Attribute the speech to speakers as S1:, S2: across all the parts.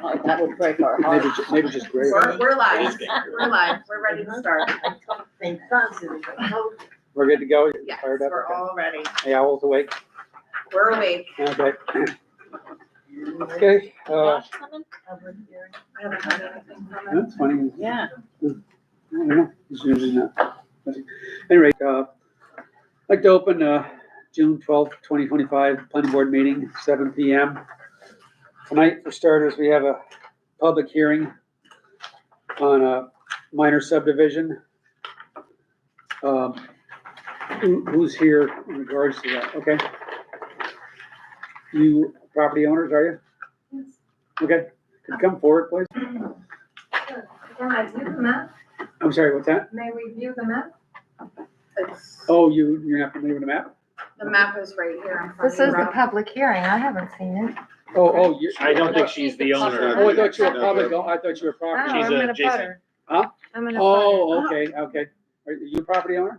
S1: Like, That would break our
S2: Maybe,
S1: heart.
S2: ju- maybe just gray.
S3: We're, we're
S4: It
S3: live,
S4: is big.
S3: we're live, we're ready to start,
S2: We're good to go? You're
S3: yes,
S2: Fired up?
S3: we're all ready,
S2: Yeah, I was awake.
S3: we're awake.
S2: Okay. Okay, uh,
S3: I haven't heard anything from it.
S2: that's funny.
S1: Yeah.
S2: I don't know. It's usually not. Anyway, uh, I'd like to open, uh, June twelfth, twenty twenty-five, planning board meeting, seven P M. Tonight, for starters, we have a public hearing on a minor subdivision. Um, who- who's here in regards to that? Okay. You property owners, are you? Okay, could you come forward, please?
S5: Can I view the map?
S2: I'm sorry, what's that?
S5: May we view the map?
S3: It's-
S2: Oh, you, you're not familiar with the map?
S3: The map is right here. in front
S6: This is
S3: of
S6: the
S3: you,
S6: public hearing, I haven't seen it.
S2: Oh, oh, you.
S4: I don't think she's the owner.
S2: Oh, I thought you were
S4: No,
S2: public, oh, I thought you were
S6: Oh,
S2: property.
S4: She's
S6: I'm
S4: a
S6: an a
S4: Jason.
S6: butter.
S2: Huh?
S6: I'm an abutter.
S2: Oh, okay, okay. Are you a property owner?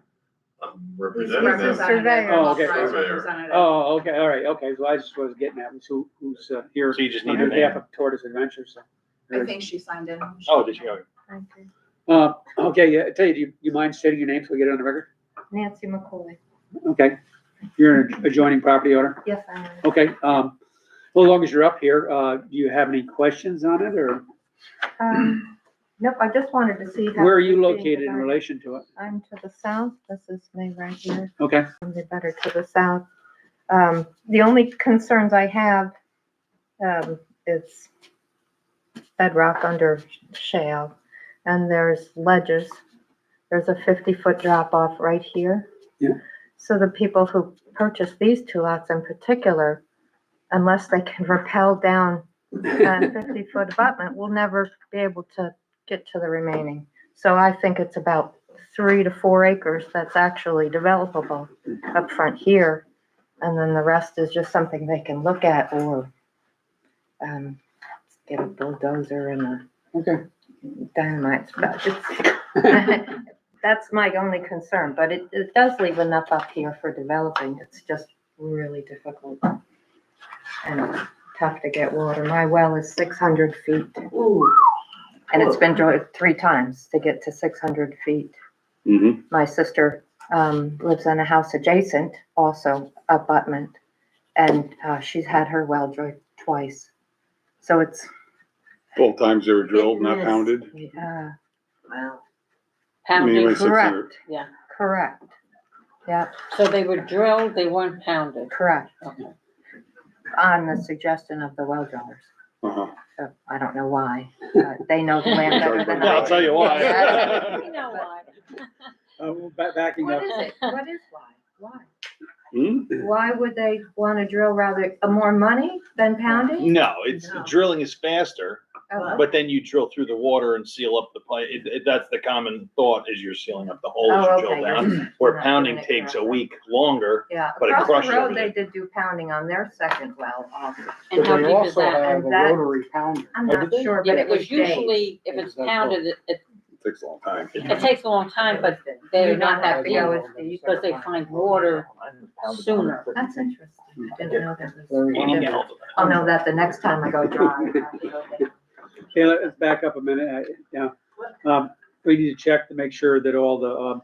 S7: I'm
S3: He's
S7: representing
S6: representative.
S7: them.
S3: representative.
S2: Oh, okay.
S3: Authorized representative.
S2: Oh, okay, all right, okay, so I just was getting at was who, who's uh, here
S4: So you just
S2: on
S4: need her
S2: behalf
S4: name.
S2: of Tortoise Adventure, so.
S3: I think she signed in.
S4: Oh, did she go?
S6: Okay.
S2: Uh, okay, yeah, I tell you, do you, you mind stating your name so we get it on the record?
S6: Nancy McCoy,
S2: Okay, you're an adjoining property owner,
S6: yes, I am.
S2: okay, um, well, as long as you're up here, uh, do you have any questions on it, or
S6: Um, Nope, I just wanted to see. how
S2: where are you
S6: it's being
S2: located in
S6: divided.
S2: relation to it?
S6: I'm to the south, this is me right here.
S2: Okay,
S6: from the butter to the south. Um, the only concerns I have, um, is bedrock under shale, and there's ledges. There's a fifty-foot drop-off right here.
S2: Yeah.
S6: So the people who purchased these two lots in particular, unless they can rappel down a fifty-foot abutment, will never be able to get to the remaining. So I think it's about three to four acres that's actually developable up front here. And then the rest is just something they can look at or um, get a bulldozer and a
S2: okay.
S6: dynamite spot. That's my only concern, but it, it does leave enough up here for developing. It's just really difficult. And tough to get water. My well is six hundred feet. And it's been drilled three times to get to six hundred feet
S4: Mm-hmm.
S6: my sister um, lives in a house adjacent, also abutment, and uh, she's had her well drilled twice. So it's.
S7: Both times they were drilled, not
S6: Yes.
S7: pounded.
S6: Uh,
S7: Anyway,
S1: Pounded.
S7: six hundred.
S6: correct.
S1: Yeah.
S6: Correct. Yep,
S1: So they were drilled, they weren't pounded.
S6: correct.
S1: Okay.
S6: On the suggestion of the well drillers.
S7: Uh-huh.
S6: So I don't know why, but they know the land better than
S4: Yeah,
S6: I
S4: I'll tell
S6: do.
S4: you why.
S1: You know why.
S2: Uh, well, ba- backing up,
S6: What is it? What is why? Why?
S7: Hmm?
S6: Why would they want to drill rather, uh, more money than pounding?
S4: No, it's,
S3: No.
S4: drilling is faster,
S6: Oh,
S4: Mm, but then you drill through the water and seal up the pipe. It, it, that's the common thought is you're sealing up the hole as
S6: Oh,
S4: you drill
S6: okay,
S4: down.
S6: you're-
S4: Where
S6: you're not
S4: pounding
S6: doing it
S4: takes a
S6: correctly.
S4: week longer.
S6: Yeah,
S4: But it
S6: across
S4: crushes
S6: the road, they
S4: everything.
S6: did do pounding on their second well also.
S1: And how
S2: But
S1: deep
S2: they
S1: is
S2: also
S1: that?
S2: have a
S6: That-
S2: rotary pounder.
S6: I'm
S2: Oh,
S6: not
S2: did they?
S6: sure,
S1: Yeah,
S6: but it was days.
S1: usually, if it's
S2: It's not
S1: pounded, it, it
S7: Takes a long time.
S1: it takes a long time, but they're
S6: You're
S1: not that
S2: happy
S1: deep.
S2: hours.
S1: because they find water sooner.
S6: That's interesting.
S4: Mm.
S6: I didn't know that was.
S2: Very
S4: Eighty
S2: long.
S4: gallons of
S6: I'll know that the next time I go drive.
S2: Okay, let- let's back up a minute, I, yeah. Um, we need to check to make sure that all the, um,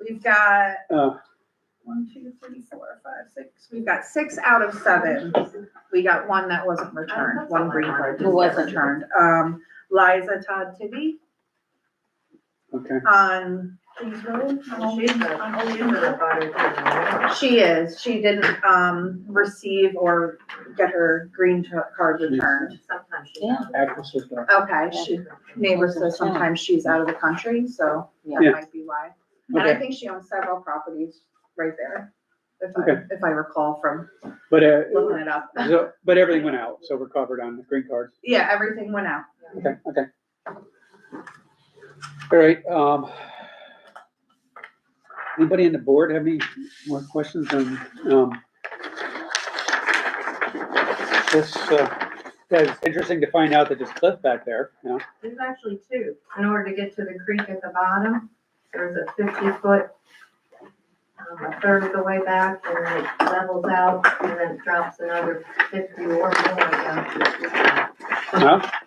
S3: We've got
S2: uh,
S3: one, two, three, four, five, six, we've got six out of seven. We got one that wasn't returned, one green card
S1: Who
S3: didn't get
S1: wasn't?
S3: returned. Um, Liza Todd Tibby
S2: okay,
S3: on Kings Road. on Old Kings- on Old Kings Road. She is, she didn't, um, receive or get her green t- card returned.
S6: Sometimes she
S1: Yeah.
S6: does.
S2: access is not-
S3: Okay, she, neighbor says sometimes she's out of the country, so
S2: Yeah.
S3: that might be why. And I
S2: Okay,
S3: think she owns several properties right there, if
S2: Okay.
S3: I, if I recall from
S2: but, uh,
S3: looking it up.
S2: so, but everything went out, so we're covered on the green cards.
S3: Yeah, everything went out.
S2: Okay, okay. All right, um, anybody on the board have any more questions on, um, this, uh, yeah, it's interesting to find out that there's cliff back there, you know?
S6: There's actually two. In order to get to the creek at the bottom, there's a fifty foot, um, a third of the way back, and then it levels out, and then it drops another fifty or more down to the creek.
S2: Huh?